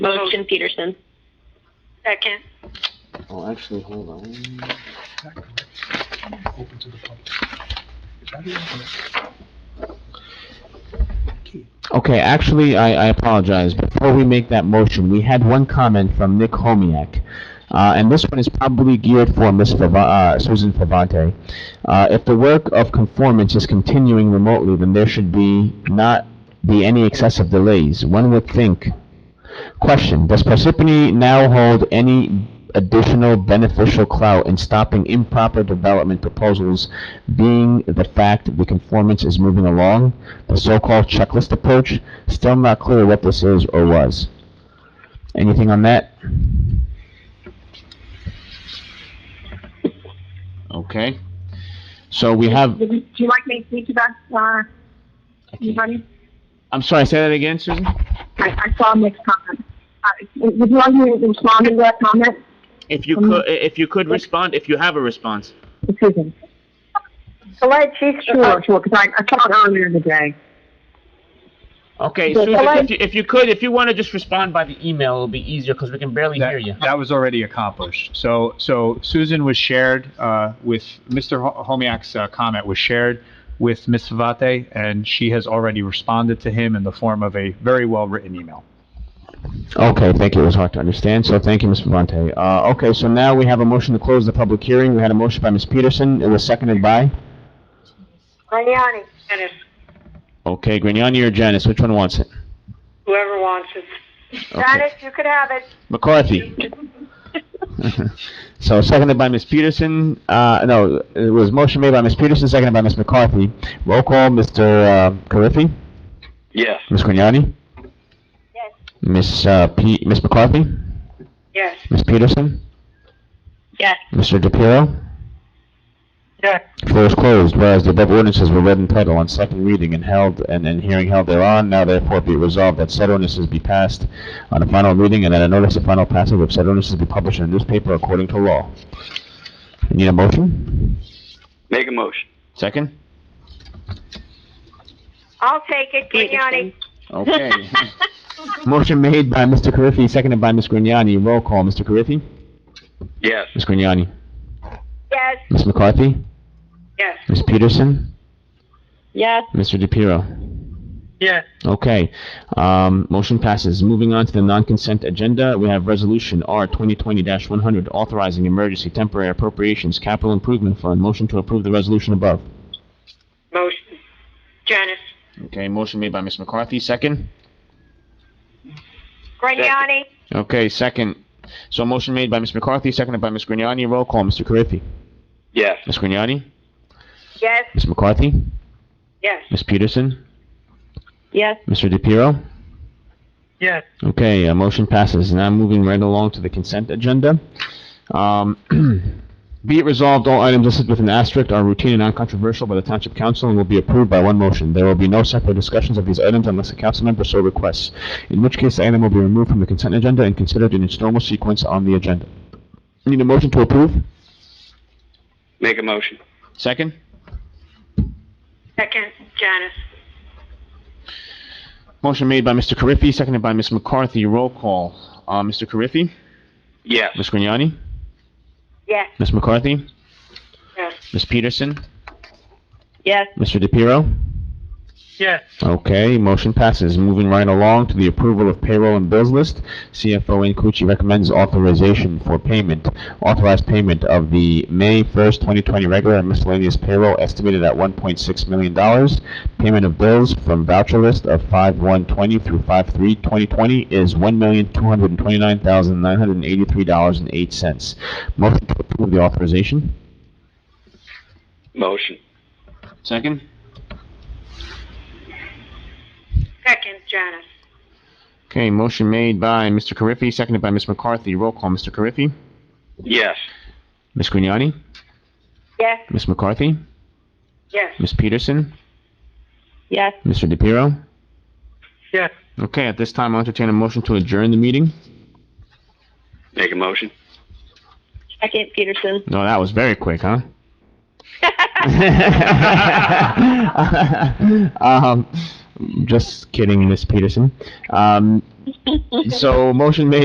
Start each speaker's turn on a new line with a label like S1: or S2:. S1: Motion Peterson.
S2: Second.
S3: Oh, actually, hold on.
S4: Is that correct? Open to the public. Is that it? Okay.
S5: Okay, actually, I, I apologize. Before we make that motion, we had one comment from Nick Homiak. Uh, and this one is probably geared for Ms. Fava- uh, Susan Favante. Uh, if the work of conformance is continuing remotely, then there should be not be any excessive delays. One would think. Question, does Parsippany now hold any additional beneficial clout in stopping improper development proposals being the fact the conformance is moving along? the so-called checklist approach. Still not clear what this is or was. Anything on that? Okay. So we have,
S6: Do you- do you like me to speak to that, uh, anybody?
S5: I'm sorry, say that again, Susan?
S6: I, I saw Nick's comment. Uh, would you like me to respond to that comment?
S7: If you could, if you could respond, if you have a response.
S6: Excuse me.
S2: Alright, she's,
S6: Sure, sure, because I, I saw it earlier in the day.
S7: Okay,
S6: Yes,
S7: Susan,
S6: hello?
S7: if you, if you could, if you want to just respond by the email, it'll be easier because we can barely hear you.
S8: That, that was already accomplished. So, so Susan was shared uh, with Mr. Ho- Homiak's uh, comment was shared with Ms. Savate, and she has already responded to him in the form of a very well-written email.
S5: Okay, thank you. It was hard to understand, so thank you, Ms. Vavante. Uh, okay, so now we have a motion to close the public hearing. We had a motion by Ms. Peterson. It was seconded by?
S2: Lignani,
S5: Okay, Grignani or Janice, which one wants it?
S2: whoever wants it. Janice, you could have it.
S5: McCarthy. So seconded by Ms. Peterson, uh, no, it was motion made by Ms. Peterson, seconded by Ms. McCarthy. Roll call, Mr. uh, Carriffy,
S3: Yes.
S5: Ms. Grignani,
S2: Yes.
S5: Ms. uh, P, Ms. McCarthy,
S2: Yes.
S5: Ms. Peterson,
S1: Yes.
S5: Mr. DePiero.
S2: Yes.
S5: Floor is closed, whereas the above ordinances were read in title on second reading and held, and, and hearing held thereon, now therefore be resolved that said ordinances be passed on a final reading and that a notice of final passage of said ordinances be published in a newspaper according to law. You Need a motion?
S3: Make a motion.
S5: Second?
S2: I'll take it, Lignani.
S1: Peterson.
S5: Okay. Motion made by Mr. Carriffy, seconded by Ms. Grignani. Roll call, Mr. Carriffy?
S3: Yes.
S5: Ms. Grignani?
S2: Yes.
S5: Ms. McCarthy?
S2: Yes.
S5: Ms. Peterson?
S1: Yes.
S5: Mr. DePiero?
S2: Yes.
S5: Okay, um, motion passes. Moving on to the non-consent agenda, we have Resolution R 2020-100, authorizing emergency temporary appropriations capital improvement fund. Motion to approve the resolution above.
S2: Motion. Janice.
S5: Okay, motion made by Ms. McCarthy, second?
S2: Grignani?
S5: Okay, second. So motion made by Ms. McCarthy, seconded by Ms. Grignani. Roll call, Mr. Carriffy.
S3: Yes.
S5: Ms. Grignani?
S2: Yes.
S5: Ms. McCarthy?
S2: Yes.
S5: Ms. Peterson?
S1: Yes.
S5: Mr. DePiero?
S2: Yes.
S5: Okay, uh, motion passes. Now moving right along to the consent agenda. Um, Be it resolved, all items listed with an asterisk are routine and non-controversial by the Township Council and will be approved by one motion. There will be no separate discussions of these items unless a council member so requests, in which case the item will be removed from the consent agenda and considered in its normal sequence on the agenda. Need a motion to approve?
S3: Make a motion.
S5: Second?
S2: Second, Janice.
S5: Motion made by Mr. Carriffy, seconded by Ms. McCarthy. Roll call. Uh, Mr. Carriffy?
S3: Yes.
S5: Ms. Grignani?
S2: Yes.
S5: Ms. McCarthy?
S2: Yes.
S5: Ms. Peterson?
S1: Yes.
S5: Mr. DePiero?
S2: Yes.
S5: Okay, motion passes. Moving right along to the approval of payroll and bills list. CFO Nkuchi recommends authorization for payment, authorized payment of the May 1st, 2020 regular and miscellaneous payroll estimated at $1.6 million. Payment of bills from voucher list of 5/1/20 through 5/3/2020 is $1,229,983.08. Motion to approve the authorization.
S3: Motion.
S5: Second.
S2: Second, Janice.
S5: Okay, motion made by Mr. Carriffy, seconded by Ms. McCarthy. Roll call, Mr. Carriffy.
S3: Yes.
S5: Ms. Grignani?
S2: Yes.
S5: Ms. McCarthy?
S2: Yes.
S5: Ms. Peterson?
S1: Yes.
S5: Mr. DePiero?
S2: Yes.
S5: Okay, at this time, I'll entertain a motion to adjourn the meeting.
S3: Make a motion.
S1: Second Peterson.
S5: No, that was very quick, huh? um, Just kidding, Miss Peterson. Um, so motion made